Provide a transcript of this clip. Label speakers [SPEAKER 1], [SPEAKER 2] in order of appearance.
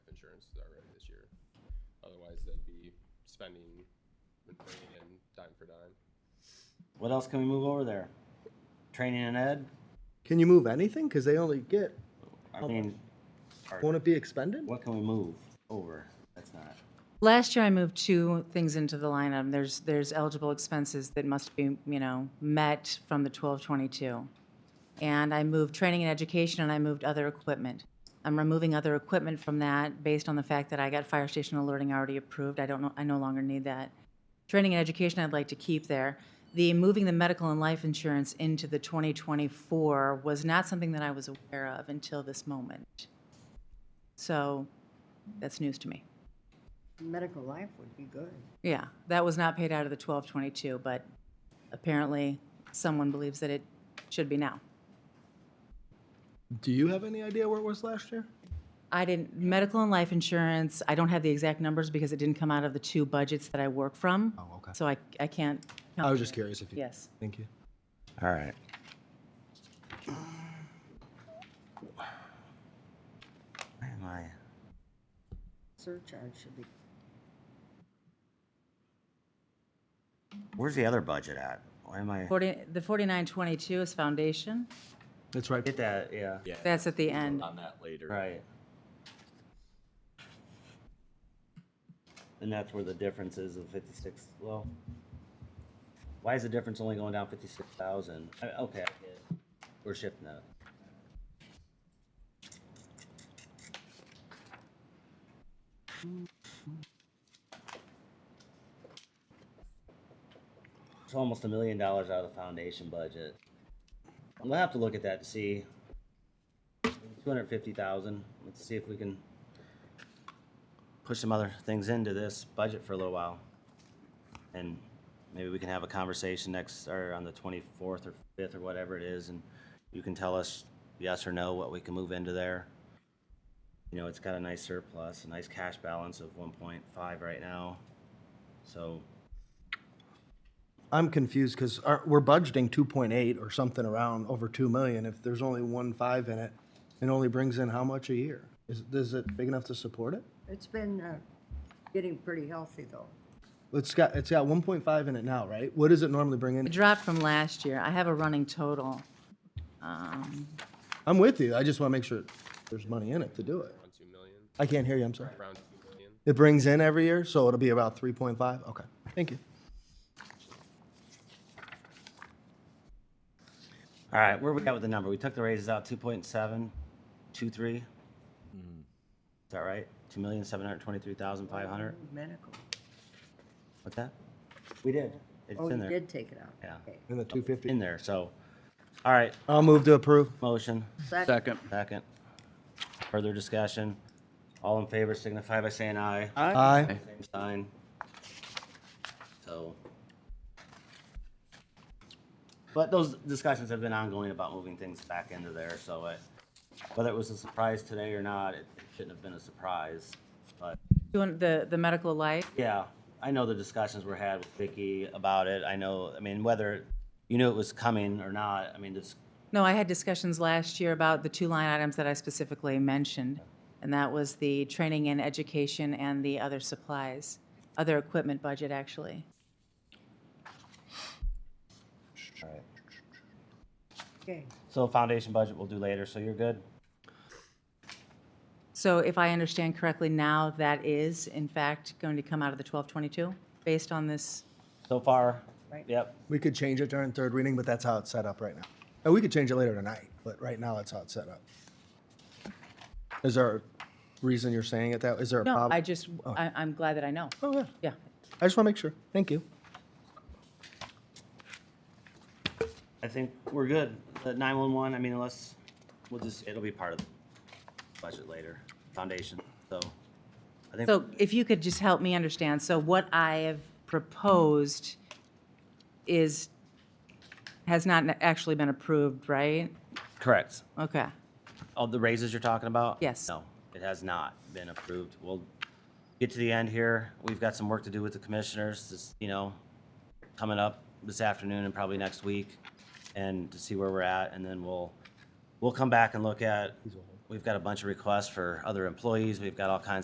[SPEAKER 1] times already this year. Otherwise, they'd be spending and bringing in dime for dime.
[SPEAKER 2] What else can we move over there? Training and ed?
[SPEAKER 3] Can you move anything? Because they only get.
[SPEAKER 2] I mean, or
[SPEAKER 3] Won't it be expended?
[SPEAKER 2] what can we move over? That's not.
[SPEAKER 4] Last year, I moved two things into the line item. There's, there's eligible expenses that must be, you know, met from the 1222. And I moved training and education, and I moved other equipment. I'm removing other equipment from that based on the fact that I got fire station alerting already approved. I don't know, I no longer need that. Training and education, I'd like to keep there. The moving the medical and life insurance into the 2024 was not something that I was aware of until this moment. So that's news to me.
[SPEAKER 5] Medical life would be good.
[SPEAKER 4] Yeah, that was not paid out of the twelve twenty-two, but apparently someone believes that it should be now.
[SPEAKER 3] Do you have any idea where it was last year?
[SPEAKER 4] I didn't, medical and life insurance, I don't have the exact numbers because it didn't come out of the two budgets that I work from.
[SPEAKER 3] Oh, okay.
[SPEAKER 4] So I, I can't.
[SPEAKER 3] I was just curious if you.
[SPEAKER 4] Yes.
[SPEAKER 3] Thank you.
[SPEAKER 2] All right. Where am I?
[SPEAKER 5] Surcharge should be,
[SPEAKER 2] Where's the other budget at? Why am I?
[SPEAKER 4] Forty, the forty-nine twenty-two is foundation.
[SPEAKER 3] That's right.
[SPEAKER 2] Get that, yeah.
[SPEAKER 6] Yeah.
[SPEAKER 4] That's at the end.
[SPEAKER 6] On that later.
[SPEAKER 2] Right. And that's where the difference is of fifty-six, well. Why is the difference only going down fifty-six thousand? Okay, I get it. We're shifting that. It's almost a million dollars out of the foundation budget. I'm gonna have to look at that to see two hundred fifty thousand. Let's see if we can push some other things into this budget for a little while. And maybe we can have a conversation next, or on the twenty-fourth or fifth or whatever it is, and you can tell us yes or no, what we can move into there. You know, it's got a nice surplus, a nice cash balance of one point five right now. So,
[SPEAKER 3] I'm confused because we're budgeting 2.8 or something around over 2 million. If there's only one five in it, it only brings in how much a year? Is, is it big enough to support it?
[SPEAKER 5] it's been uh, getting pretty healthy, though.
[SPEAKER 3] It's got, it's got 1.5 in it now, right? What does it normally bring
[SPEAKER 4] It
[SPEAKER 3] in?
[SPEAKER 4] dropped from last year. I have a running total. Um,
[SPEAKER 3] I'm with you. I just want to make sure there's money in it to do it.
[SPEAKER 1] Around two million.
[SPEAKER 3] I can't hear you, I'm sorry.
[SPEAKER 1] Around two million.
[SPEAKER 3] It brings in every year, so it'll be about 3.5? Okay, thank you.
[SPEAKER 2] all right, where we at with the number? We took the raises out two point seven, two three. Is that right? Two million, seven hundred twenty-three thousand, five hundred?
[SPEAKER 5] Medical.
[SPEAKER 2] What's that? We did. It's
[SPEAKER 5] Oh,
[SPEAKER 2] in
[SPEAKER 5] you
[SPEAKER 2] there.
[SPEAKER 5] did take it out.
[SPEAKER 2] Yeah.
[SPEAKER 5] Okay.
[SPEAKER 3] In the
[SPEAKER 2] In
[SPEAKER 3] 250.
[SPEAKER 2] there, so, all right,
[SPEAKER 3] I'll move to approve.
[SPEAKER 2] motion,
[SPEAKER 5] Second,
[SPEAKER 6] Second.
[SPEAKER 2] second. Further discussion. All in favor signify by saying aye.
[SPEAKER 3] Aye.
[SPEAKER 2] Same sign. So. But those discussions have been ongoing about moving things back into there, so it, whether it was a surprise today or not, it shouldn't have been a surprise. But
[SPEAKER 4] Doing the, the medical life,
[SPEAKER 2] Yeah, I know the discussions were had with Vicky about it. I know, I mean, whether you knew it was coming or not, I mean, this,
[SPEAKER 4] No, I had discussions last year about the two line items that I specifically mentioned, and that was the training and education and the other supplies, other equipment budget, actually.
[SPEAKER 5] okay.
[SPEAKER 2] so foundation budget we'll do later, so you're good?
[SPEAKER 4] So if I understand correctly now, that is in fact going to come out of the 1222, based on this,
[SPEAKER 2] So far?
[SPEAKER 5] Right.
[SPEAKER 2] Yep,
[SPEAKER 3] We could change it during third reading, but that's how it's set up right now. And we could change it later tonight, but right now that's how it's set up. Is there a reason you're saying it that, is there a
[SPEAKER 4] no,
[SPEAKER 3] problem?
[SPEAKER 4] I just, I, I'm glad that I know.
[SPEAKER 3] Oh, yeah.
[SPEAKER 4] Yeah.
[SPEAKER 3] I just want to make sure. Thank you.
[SPEAKER 2] I think we're good. The nine-one-one, I mean, unless, we'll just, it'll be part of the budget later, foundation, so. I think,
[SPEAKER 4] So if you could just help me understand, so what I have proposed is, has not actually been approved, right?
[SPEAKER 2] correct.
[SPEAKER 4] Okay,
[SPEAKER 2] All the raises you're talking about?
[SPEAKER 4] Yes.
[SPEAKER 2] No, it has not been approved. We'll get to the end here. We've got some work to do with the commissioners, this, you know, coming up this afternoon and probably next week, and to see where we're at, and then we'll, we'll come back and look at, we've got a bunch of requests for other employees, we've got all kinds